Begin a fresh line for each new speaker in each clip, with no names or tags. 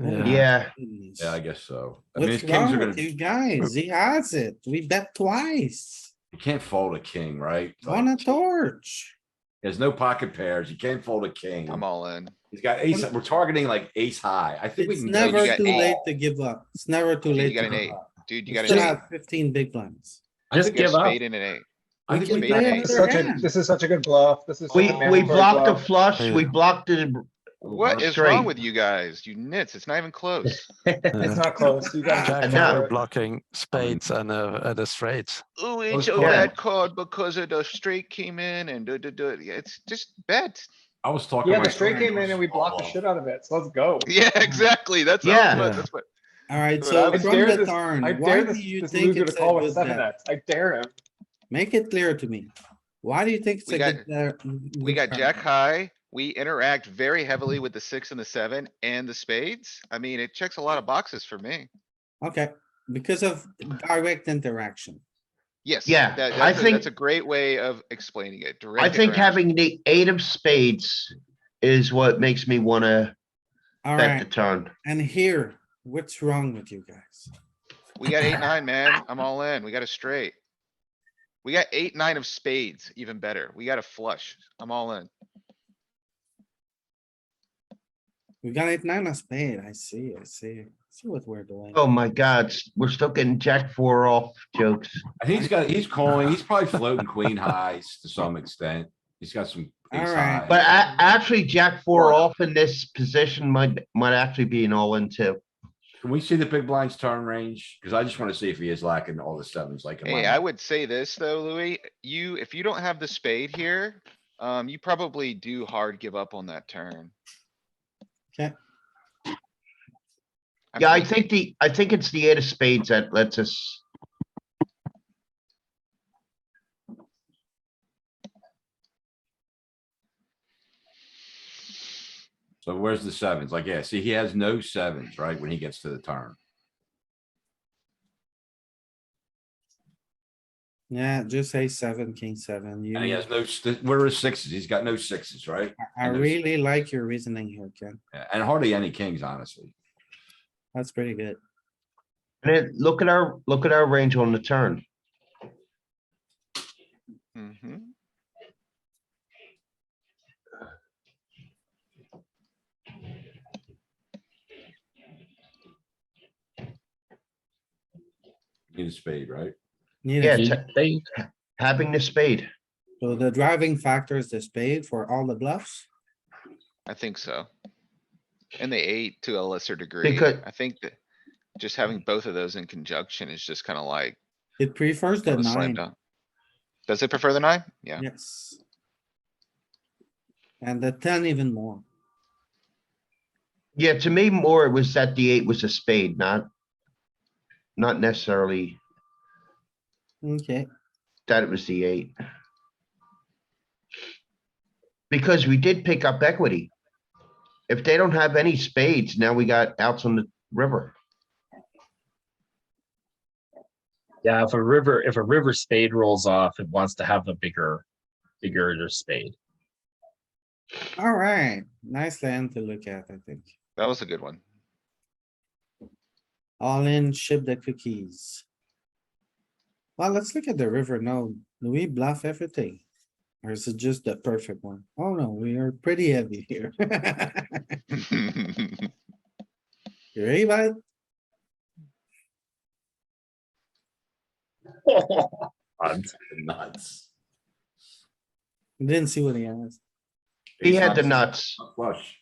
Yeah,
Yeah, I guess so. I mean, his
What's
kings are
wrong with
gonna,
you
you
guys? He has it. We bet twice
can't fold a king, right?
on
Like,
a torch.
There's no pocket pairs. You can't fold a king.
I'm all in.
He's got ace, we're targeting like ace high. I think we
It's
can. go-
you
never
got
too
eight.
late to give up. It's never too
You
late.
got
to
an
give
eight.
up.
Dude, you
You
got
still
an
have fifteen big blinds.
eight.
Just
You got
give
a
up.
spade and an eight.
I think
can
we
play
made
got
it.
another
ace.
Such a,
hand.
this is such a good bluff. This is.
we,
such a
we
mandatory
blocked the
bluff.
flush, we
Yeah.
blocked the,
What is
straight.
wrong with you guys? You nits, it's not even close.
It's not close. You got.
Jack
Jack Yeah.
to
five
cover
were
it.
blocking spades and a, and a straight.
Ooh,
Those
it's a
calls.
bad card because of the straight came in and duh, duh, duh. Yeah, It's just bet.
I was talking.
Yeah,
my
the straight
friend
came in and we
was-
blocked the
oh,
shit out of it, so let's go.
Yeah, exactly. That's. how it
Yeah.
was. That's what.
Alright,
Dude,
so
I
from
I dare
the
this, I
turn,
dare
why
this,
do you
this
think
loser to
it's a
call with
good
seven
bet?
X. I dare him.
Make it clear to me. Why do you think it's
We
a
got-
good? bet-
We
good
got
turn?
jack high. We interact very heavily with the six and the seven and the spades. I mean, it checks a lot of boxes for me.
Okay, because of direct interaction.
Yes.
Yeah,
that-
I
that's a-
think-
That's a great way of explaining it.
I
direct
think
interaction.
having the eight of spades is what makes me wanna bet the
Alright,
turn.
and here, what's wrong with you guys?
We got eight, nine, man. I'm all in. We got a straight. We got eight, nine of spades, even better. We got a flush. I'm all in.
We got eight, nine of spade. I see, I see. See what we're doing.
Oh my god, s- we're still getting jack four off jokes.
I think he's got, he's calling, he's probably floating queen highs to some extent. He's got some. ace
Alright.
high.
But a- actually, jack four off in this position might, might actually be an all in too.
Can we see the big blinds turn range? Cause I just wanna see if he is lacking all the sevens like. in my
Hey, I
mind.
would say this though, Louis, you, if you don't have the spade here, um, you probably do hard give up on that turn.
'Kay.
I
Yeah, I
mean,
think the, I think it's the eight of spades that lets us.
So where's the sevens? Like, yeah, see, he has no sevens, right? When he gets to the turn.
Yeah, just say seven, king seven. You,
And he has no, st- where are his sixes? He's got no sixes, right?
I
and there's-
really like your reasoning here, Ken.
Yeah, And hardly any kings, honestly.
That's pretty good.
And then look at our, look at our range on the turn.
mhm.
Need a spade, right?
Need
Yeah,
a
it's ha- having the spade.
So the driving factor is the spade for all the bluffs?
I think so. And the eight to a lesser degree.
Because-
I think that just having both of those in conjunction is just kinda like
It prefers the
a slam
nine,
dunk. Does it prefer the nine? Yeah.
yes. And the ten even more.
Yeah, to me more it was that the eight was a spade, not, not necessarily
Okay,
that it was the eight. Because we did pick up equity. If they don't have any spades, now we got outs on the river.
Yeah, if a river, if a river spade rolls off, it wants to have a bigger, bigger spade.
alright, nice land to look at, I think.
That was a good one.
All in, ship the cookies. Well, let's look at the river now. Do we bluff everything? Or is it just the perfect one? Oh no, we are pretty heavy here. You ready, bud?
Nuts.
Didn't see what he has.
He
Ace
had the
high,
nuts.
Flush.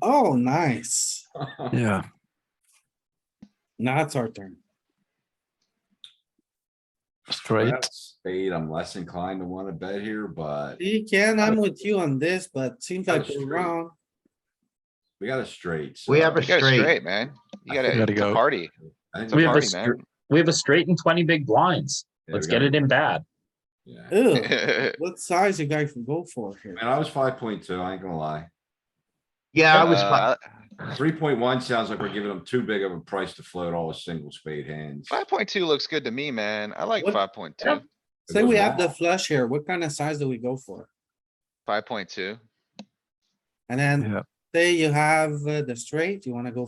Oh, nice.
Yeah.
Now it's our turn.
Straight.
Perhaps Spade, I'm less inclined to wanna bet here, but
You can, I'm with you on this, but seems
Got a
like we're
straight.
wrong.
we got a straight.
We
so
have a
You got a
straight.
straight, man. You
I
gotta,
think-
Gotta
it's a
go.
party.
I think
It's a
we
We have a
party,
already-
str-
man.
We have a straight and twenty big blinds.
yeah,
Let's
we
get
got-
it in bad.
yeah.
Ew,
I
what size you guys can go for here?
Man, I was five point two, I ain't gonna lie.
Yeah, I was,
Uh,
fi-
Three point one sounds like we're giving them too big of a price to float all the single spade hands.
Five point two looks good to me, man. I like
What-
five point two.
Yep. Say we have the flush here, what kind of size do we go for?
Five point two.
And then,
Yeah.
say you have uh, the straight, you wanna go